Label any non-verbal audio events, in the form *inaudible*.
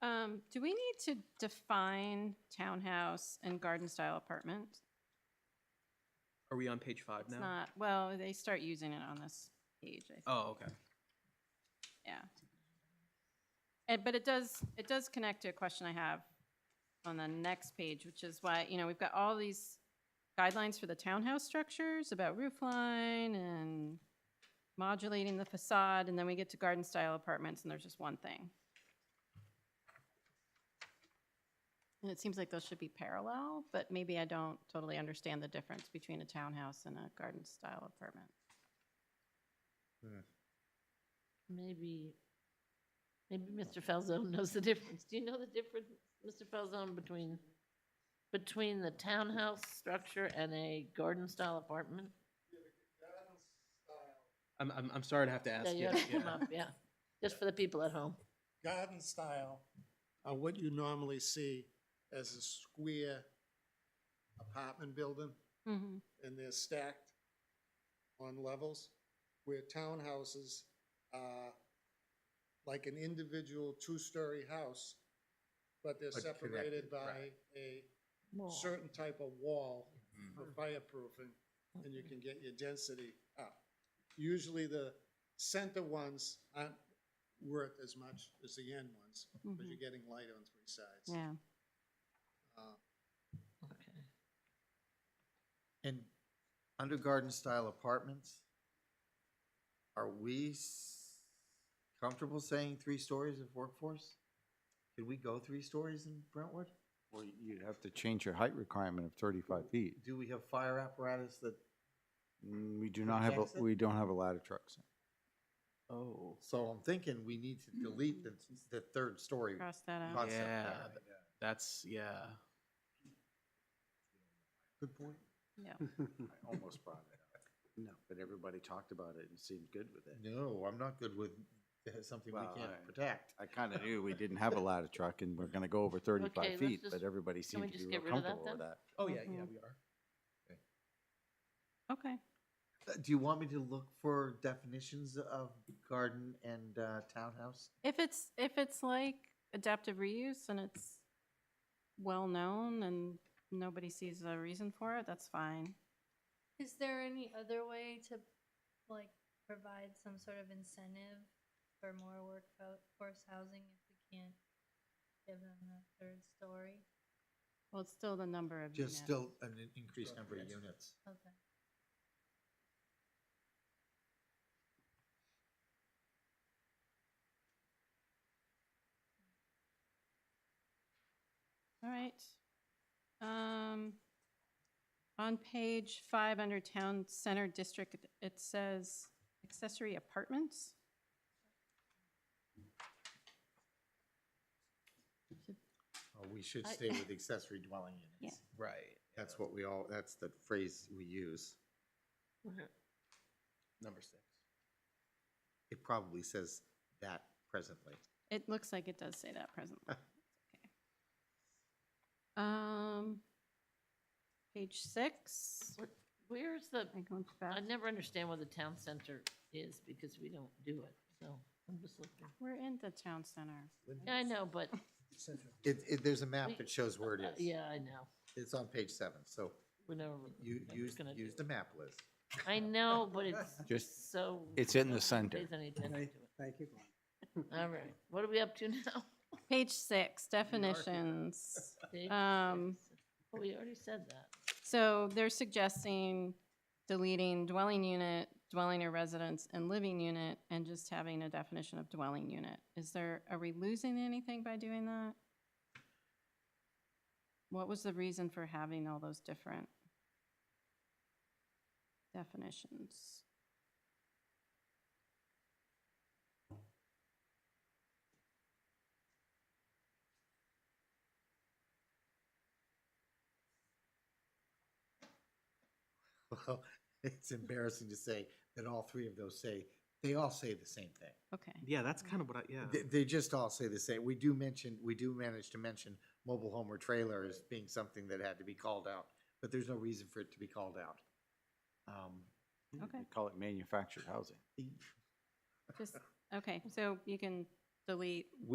Um, do we need to define townhouse and garden-style apartment? Are we on page five It's now? not, well, they start using it on this page, I think. Oh, okay. Yeah. And, but it does, it does connect to a question I have on the next page, which is why, you know, we've got all these guidelines for the townhouse structures about roof line and modulating the facade, and then we get to garden style apartments, and there's just one thing. And it seems like those should be parallel, but maybe I don't totally understand the difference between a townhouse and a garden style apartment. Maybe, maybe Mr. Falzone knows the difference. Do you know the difference, Mr. Falzone, between, between the townhouse structure and a garden-style apartment? I'm, I'm, I'm sorry to have to Yeah, ask you you. have to come yeah. up, Yeah, just for the people at home. garden style are what you normally see as a square apartment building, Mm-hmm. and they're stacked on levels, where townhouses are like an individual two-story house, but they're But separated connected, by right. a Wall. certain type of wall Mhm. for fireproofing, and you can get your density up. Usually the center ones aren't worth as much as the end ones, because you're getting light on three sides. Mm-hmm. Yeah. Uh, Okay. And under garden-style apartments, are we s- comfortable saying three stories of workforce? Could we go three stories in Brentwood? Well, you'd have to change your height requirement of thirty-five feet. Do we have fire apparatus that, Mm, We do not have, a Jackson? we don't have a ladder truck. so- Oh. so I'm thinking we need to delete the, the third story Cross that out. concept. Yeah, th- that's, yeah. Good point. *laughs* I almost brought it up. No. But everybody talked about it and seemed good with it. No, I'm not good with something we Well, can't I- protect. I kind of knew we didn't have a ladder truck and we're going to go over Okay, thirty-five let's feet, just- but everybody can we seemed to be just get real rid of that comfortable with then? that. Oh, yeah, yeah, Mhm. Mm-hmm. we are. Okay. Uh, Do you want me to look for definitions of garden and uh, townhouse? If it's, if it's like adaptive reuse and it's well-known and nobody sees a reason for it, that's fine. Is there any other way to like provide some sort of incentive for more workforce housing if we can't give them a third story? Well, it's still the number of Just units. still an in- increased number of units. Okay. All right. Um, on page five, under Town Center District, it says accessory apartments. Uh, We should I- stay with accessory dwelling units. Right. That's what we all, that's the phrase we use. Okay. Number six. It probably says that presently. It looks like it does say that *laughs* presently. It's okay. Um, page six. What- Where's the, Am I going too I fast? never understand where the town center is because we don't do it, so I'm just looking. We're in the town center. Yeah, I know, but, It, it, there's a map We- that shows where it is. Uh, yeah, I know. It's on page seven, so We're never. you, never use, gonna do use it. the map, Liz. I know, *laughs* but it's Just- so. it's in the nobody center. pays any attention Right. to it. Thank you, All right, what are we up to now? Page six, definitions. Dave? Um, Oh, We already said that. So they're suggesting deleting dwelling unit, dwelling or residence, and living unit, and just having a definition of dwelling unit. Is there, are we losing anything by doing that? What was the reason for having all those different definitions? *laughs* Well, it's embarrassing to say that all three of those say, they all say the same thing. Okay, Yeah, that's kind of what I, yeah. They, they just all say the same. We do mention, we do manage to mention mobile home or trailer as being something that had to be called out, but there's no reason for it to be called out. Um, Okay. They Call it manufactured housing. just, okay, so you can delete